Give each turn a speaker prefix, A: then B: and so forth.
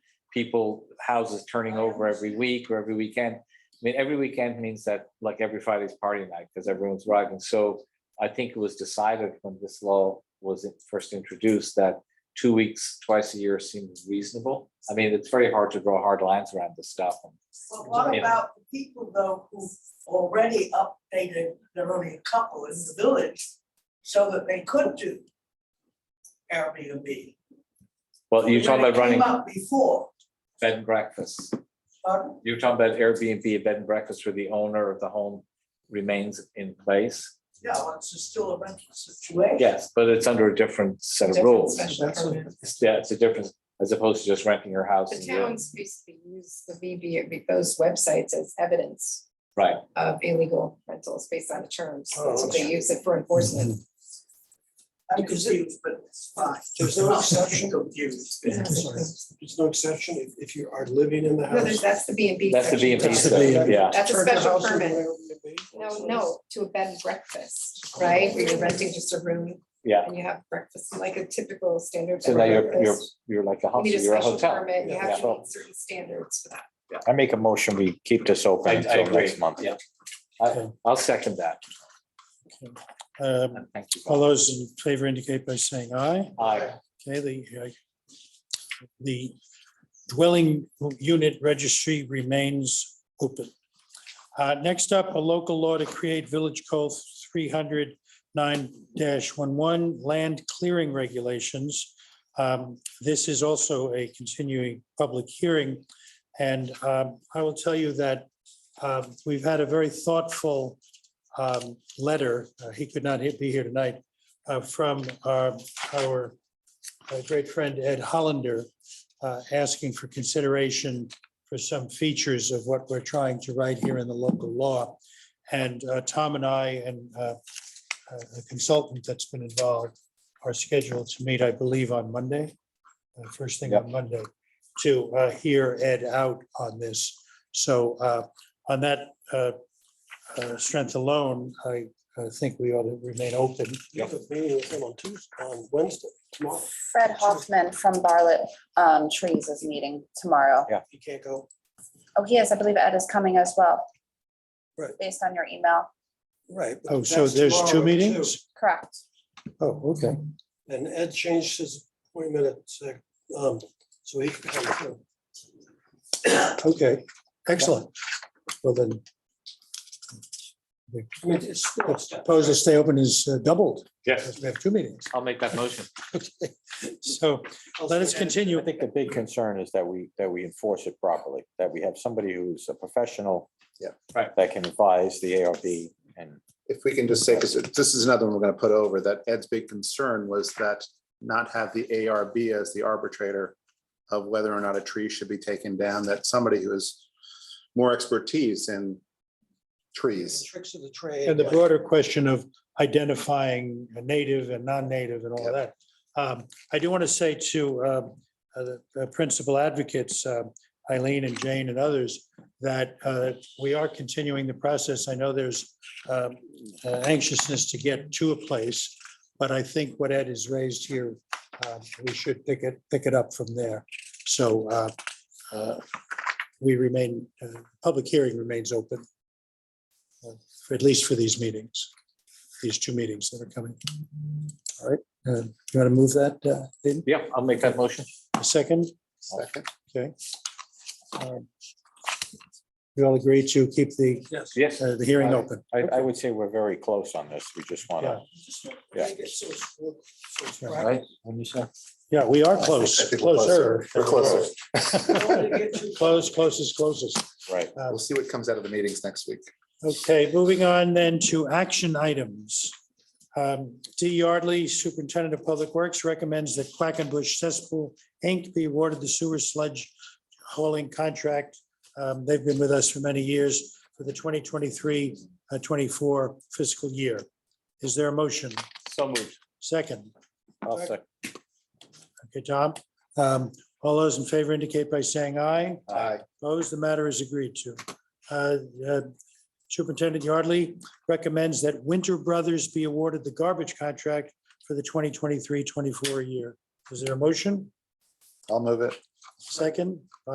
A: people, houses turning over every week or every weekend. I mean, every weekend means that like every Friday's party night because everyone's riding. So I think it was decided when this law was first introduced that two weeks, twice a year seems reasonable. I mean, it's very hard to draw hard lines around this stuff.
B: But what
A: Yeah.
B: about the people though who already updated, there are only a couple in the village, so that they could do Airbnb?
A: Well, you're talking
B: When
A: about
B: it came
A: running
B: up Before,
A: bed and breakfasts.
B: pardon?
A: You're talking about Airbnb, a bed and breakfast where the owner of the home remains in place.
B: yeah, well, it's just still a rental situation.
A: Yes, but it's under a different set of
C: Different
A: rules.
C: special
A: It's-
C: permit.
A: Yeah, it's a difference as opposed to just renting your house.
C: The
A: and your-
C: towns basically use the VB, those websites as evidence
A: Right,
C: of illegal rentals based on the terms,
D: Oh, Mm-hmm.
C: so they use it for enforcement.
B: I'm confused, but it's fine.
D: There's no
B: I'm
D: exception?
B: Confused.
C: Yeah.
D: There's no exception if, if you are living in the
C: No, there's,
D: house.
C: that's the B and B.
A: that's the B and B
D: That's the
A: stuff,
D: B and B.
A: yeah.
C: That's a
D: Turn the
C: special
D: house into
C: permit.
D: an Airbnb or
C: No,
D: something.
C: no, to a bed and breakfast, right, where you're renting just a room.
A: Yeah.
C: And you have breakfast, like a typical standard.
A: So
C: bed
A: now
C: and
A: you're, you're,
C: breakfast.
A: you're like a
C: You need a
A: hotel, you're a
C: special
A: hotel.
C: permit, you
D: Yeah.
C: have to
A: Yeah.
C: meet certain standards for that.
E: I make a motion, we keep this
A: I,
E: open
A: I
E: until
A: agree,
E: next month.
A: yeah. I,
F: Okay.
A: I'll second that.
F: Um,
A: And thank you.
F: All those in favor indicate by saying aye.
A: Aye.
F: Okay, the, uh, the dwelling unit registry remains open. Uh, Next up, a local law to create Village Code 309-11 land clearing regulations. Um, This is also a continuing public hearing. And um, I will tell you that um, we've had a very thoughtful um, letter, uh, he could not be here tonight, uh, from our our a great friend Ed Hollander uh, asking for consideration for some features of what we're trying to write here in the local law. And uh, Tom and I and uh, uh, the consultant that's been involved are scheduled to meet, I believe, on Monday, uh, first thing on Monday, to uh, hear Ed out on this. So uh, on that uh, uh, strength alone, I I think we ought to remain open.
D: You have a meeting with him on Tuesday, on Wednesday, tomorrow.
G: Fred Hoffman from Bartlett um, Trees is meeting tomorrow.
D: You can't go.
G: Oh, he is, I believe Ed is coming as well.
D: Right.
G: Based on your email,
D: Right. but
F: Oh, so
D: that's
F: there's
D: tomorrow
F: two
D: at two.
F: meetings?
G: correct?
F: Oh, okay.
D: And Ed changed his appointment at, sec- um, so he can come too.
F: Okay, excellent. Well, then,
D: I mean, it's still a step.
F: suppose to stay open is uh, doubled,
A: Yes,
F: because we have two meetings.
A: I'll make that motion.
F: So let us
E: I
F: continue.
E: think the big concern is that we, that we enforce it properly, that we have somebody who's a professional.
H: Yeah.
A: Right.
E: That can advise the ARB and
H: if we can just say, because this is another one we're gonna put over, that Ed's big concern was that not have the ARB as the arbitrator of whether or not a tree should be taken down, that somebody who has more expertise in trees.
D: Tricks of the trade.
F: And the broader question of identifying a native and non-native and all of that. Um, I do want to say to um, uh, the the principal advocates, uh, Eileen and Jane and others, that uh, we are continuing the process. I know there's um, uh, anxiousness to get to a place, but I think what Ed has raised here, uh, we should pick it, pick it up from there. So uh, uh, we remain, uh, public hearing remains open for- at least for these meetings, these two meetings that are coming. All right, uh, you want to move that uh, in
A: Yeah, I'll make that motion.
F: a second?
H: Second.
F: Okay. Um, We all agree to keep the,
D: Yes.
A: Yes,
F: uh, the hearing open.
E: I, I would say we're very close on this. We just want to, Yeah.
D: Make it so it's- so it's
F: Yeah.
A: right? When you say-
F: Yeah, we are
H: I
F: close,
H: think we're
F: closer.
H: We're closer.
F: Close, closest, closest.
E: right,
H: We'll see what comes out of the meetings next week.
F: Okay, moving on then to action items. Um, D Yardley, Superintendent of Public Works, recommends that Quackenbush Cesspool Inc. be awarded the sewer sludge hauling contract. Um, They've been with us for many years for the 2023, uh, 24 fiscal year. Is there a motion?
A: So moved.
F: Second,
E: I'll second.
F: okay, Tom? Um, All those in favor indicate by saying aye.
H: Aye.
F: Opposed, the matter is agreed to. Uh, uh, Superintendent Yardley recommends that Winter Brothers be awarded the garbage contract for the 2023-24 year. Is there a motion?
H: I'll move it.
F: Second?